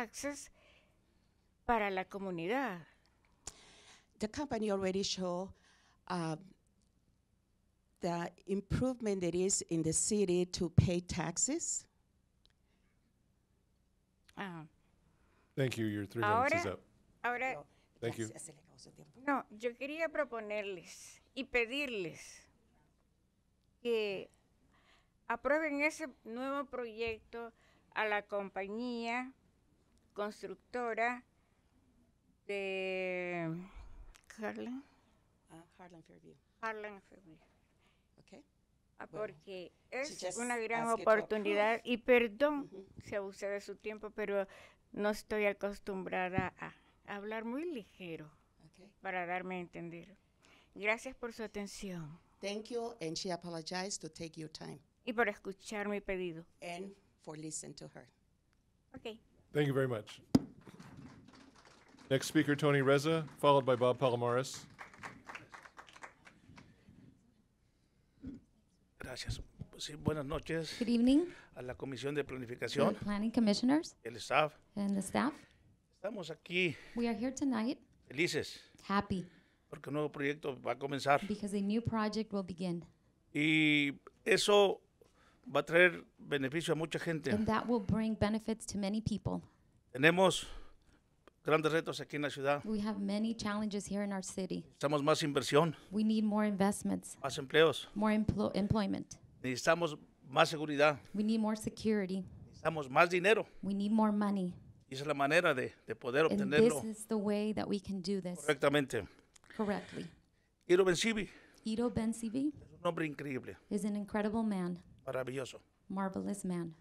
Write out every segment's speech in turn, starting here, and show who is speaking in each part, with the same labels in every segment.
Speaker 1: taxes para la comunidad.
Speaker 2: The company already show uh, the improvement it is in the city to pay taxes.
Speaker 1: Ah,
Speaker 3: Thank you. Your three minutes is
Speaker 1: Ahora,
Speaker 3: up.
Speaker 1: ahora,
Speaker 3: Thank you.
Speaker 1: no, yo quería proponerles y pedirles que aprueben ese nuevo proyecto a la compañía constructora de Harlan,
Speaker 2: Harlem Uh, Fairview.
Speaker 1: Harlan Fairview.
Speaker 2: Okay.
Speaker 1: Ah,
Speaker 2: Bueno,
Speaker 1: Porque es
Speaker 2: just
Speaker 1: una gran
Speaker 2: ask you to approve.
Speaker 1: oportunidad y perdón si abusé de su tiempo, pero no estoy acostumbrada a a hablar muy ligero
Speaker 2: Okay.
Speaker 1: para darme a entender. Gracias por su atención
Speaker 2: Thank you, and she apologized to take your time
Speaker 1: y por escuchar mi pedido.
Speaker 2: and for listening to her.
Speaker 1: Ok.
Speaker 3: Thank you very much. Next speaker, Tony Reza, followed by Bob Palomares.
Speaker 4: Gracias. Pues sí, buenas noches
Speaker 5: Good evening,
Speaker 4: a la Comisión de
Speaker 5: to the
Speaker 4: Planificación,
Speaker 5: planning commissioners
Speaker 4: el staff.
Speaker 5: and the staff.
Speaker 4: Estamos aquí
Speaker 5: We are here tonight
Speaker 4: felices
Speaker 5: happy
Speaker 4: porque un nuevo proyecto va a comenzar
Speaker 5: because a new project will begin.
Speaker 4: y eso va a traer beneficio a mucha gente.
Speaker 5: And that will bring benefits to many people.
Speaker 4: Tenemos grandes retos aquí en la ciudad.
Speaker 5: We have many challenges here in our city.
Speaker 4: Necesitamos más inversión,
Speaker 5: We need more investments,
Speaker 4: más empleos,
Speaker 5: more emplo- employment.
Speaker 4: necesitamos más seguridad,
Speaker 5: We need more security.
Speaker 4: necesitamos más dinero.
Speaker 5: We need more money.
Speaker 4: Y esa es la manera de, de poder
Speaker 5: And this
Speaker 4: obtenerlo
Speaker 5: is the way that we can do this
Speaker 4: correctamente.
Speaker 5: correctly.
Speaker 4: Iro Bencivi
Speaker 5: Ito Ben-Sivi
Speaker 4: es un hombre increíble,
Speaker 5: is an incredible man,
Speaker 4: maravilloso.
Speaker 5: marvelous man.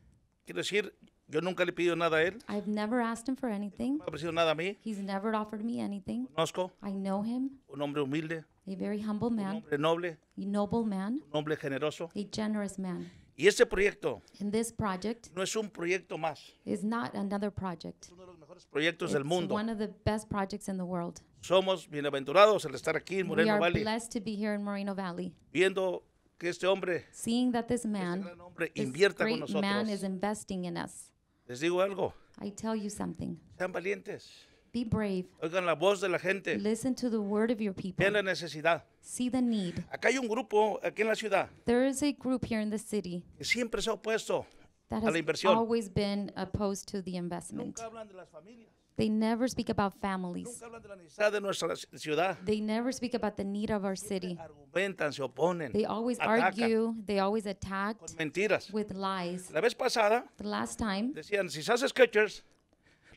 Speaker 4: Quiero decir, yo nunca le he pedido nada a él,
Speaker 5: I've never asked him for
Speaker 4: no
Speaker 5: anything.
Speaker 4: me ha ofrecido nada a mí.
Speaker 5: He's never offered me anything.
Speaker 4: Conozco
Speaker 5: I know him,
Speaker 4: un hombre humilde,
Speaker 5: a very humble
Speaker 4: un
Speaker 5: man.
Speaker 4: hombre noble,
Speaker 5: a noble man,
Speaker 4: un hombre generoso.
Speaker 5: a generous man.
Speaker 4: Y este proyecto
Speaker 5: And this project
Speaker 4: no es un proyecto más, es
Speaker 5: is not another project.
Speaker 4: uno de los mejores proyectos del
Speaker 5: It's
Speaker 4: mundo.
Speaker 5: one of the best projects in the world.
Speaker 4: Somos bienaventurados al estar aquí en
Speaker 5: We
Speaker 4: Moreno
Speaker 5: are
Speaker 4: Valley,
Speaker 5: blessed to be here in Moreno Valley,
Speaker 4: viendo que este hombre,
Speaker 5: seeing that this
Speaker 4: este
Speaker 5: man,
Speaker 4: gran hombre,
Speaker 5: this
Speaker 4: invierta con
Speaker 5: great man, is
Speaker 4: nosotros.
Speaker 5: investing in us.
Speaker 4: Les digo algo,
Speaker 5: I tell you something.
Speaker 4: sean valientes,
Speaker 5: Be brave.
Speaker 4: oigan la voz de la gente,
Speaker 5: Listen to the word of your people.
Speaker 4: vean la necesidad.
Speaker 5: See the need.
Speaker 4: Acá hay un grupo, aquí en la ciudad,
Speaker 5: There is a group here in the city
Speaker 4: que siempre se ha opuesto.
Speaker 5: that
Speaker 4: A la
Speaker 5: has
Speaker 4: inversión.
Speaker 5: always been opposed to the investment.
Speaker 4: Nunca hablan de las familias,
Speaker 5: They never speak about families.
Speaker 4: nunca hablan de la necesidad de nuestra ciudad.
Speaker 5: They never speak about the need of our city.
Speaker 4: Argumentan, se oponen,
Speaker 5: They always
Speaker 4: atacan
Speaker 5: argue, they always
Speaker 4: con
Speaker 5: attacked
Speaker 4: mentiras.
Speaker 5: with lies.
Speaker 4: La vez pasada
Speaker 5: The last time,
Speaker 4: decían, si se hace Skechers,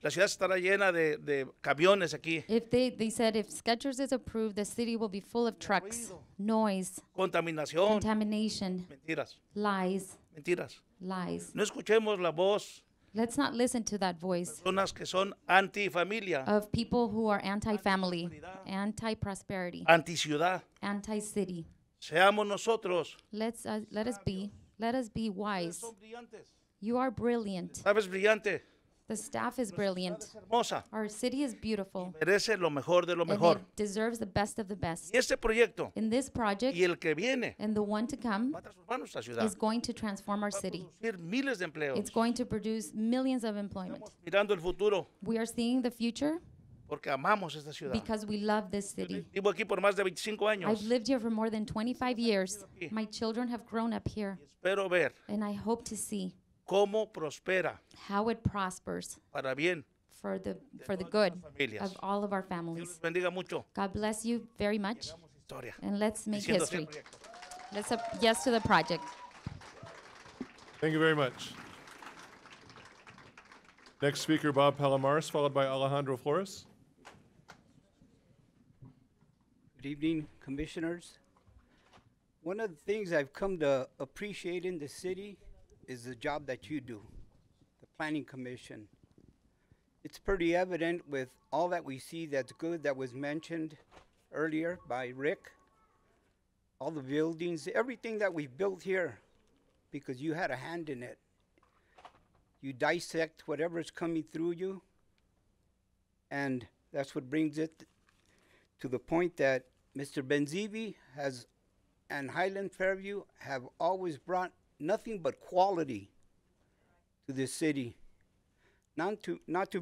Speaker 4: la ciudad estará llena de, de camiones aquí,
Speaker 5: if they, they said if Skechers is approved, the city will be full of trucks, noise,
Speaker 4: contaminación,
Speaker 5: contamination,
Speaker 4: mentiras,
Speaker 5: lies,
Speaker 4: mentiras.
Speaker 5: lies.
Speaker 4: No escuchemos la voz
Speaker 5: Let's not listen to that
Speaker 4: de
Speaker 5: voice
Speaker 4: personas que son antifamilia,
Speaker 5: of people who are anti-family, anti-prosperity,
Speaker 4: anticiudad.
Speaker 5: anti-city.
Speaker 4: Seamos nosotros.
Speaker 5: Let's uh, let us be let us be wise.
Speaker 4: Son brillantes.
Speaker 5: You are brilliant.
Speaker 4: Sabes, brillante,
Speaker 5: The staff is brilliant.
Speaker 4: es hermosa,
Speaker 5: Our city is beautiful,
Speaker 4: merece lo mejor de lo
Speaker 5: and
Speaker 4: mejor.
Speaker 5: it deserves the best of the best.
Speaker 4: Y este proyecto
Speaker 5: In this project,
Speaker 4: y el que viene
Speaker 5: And the one to come
Speaker 4: va a transformar nuestra ciudad,
Speaker 5: is
Speaker 4: va
Speaker 5: going to transform our
Speaker 4: a
Speaker 5: city.
Speaker 4: producir miles de empleos.
Speaker 5: It's going to produce millions of employment.
Speaker 4: Estamos mirando el futuro
Speaker 5: We are seeing the future
Speaker 4: porque amamos esta ciudad.
Speaker 5: because we love this city.
Speaker 4: Vivo aquí por más de 25 años.
Speaker 5: I've lived here for more than 25 years. My children have grown up here,
Speaker 4: Espero ver
Speaker 5: and I hope to see
Speaker 4: cómo prospera
Speaker 5: how it prospers
Speaker 4: para bien
Speaker 5: for the for the good
Speaker 4: las familias.
Speaker 5: of all of our
Speaker 4: Dios
Speaker 5: families.
Speaker 4: les bendiga mucho.
Speaker 5: God bless you very much,
Speaker 4: Historia.
Speaker 5: and let's make
Speaker 4: Diciendo sí al
Speaker 5: history.
Speaker 4: proyecto.
Speaker 5: Let's up, yes to the project.
Speaker 3: Thank you very much. Next speaker, Bob Palomares, followed by Alejandro Flores.
Speaker 6: Good evening, commissioners. One of the things I've come to appreciate in the city is the job that you do, the planning commission. It's pretty evident with all that we see that's good that was mentioned earlier by Rick. All the buildings, everything that we've built here, because you had a hand in it. You dissect whatever's coming through you, and that's what brings it to the point that Mr. Benzivi has and Highland Fairview have always brought nothing but quality to this city. Not to not to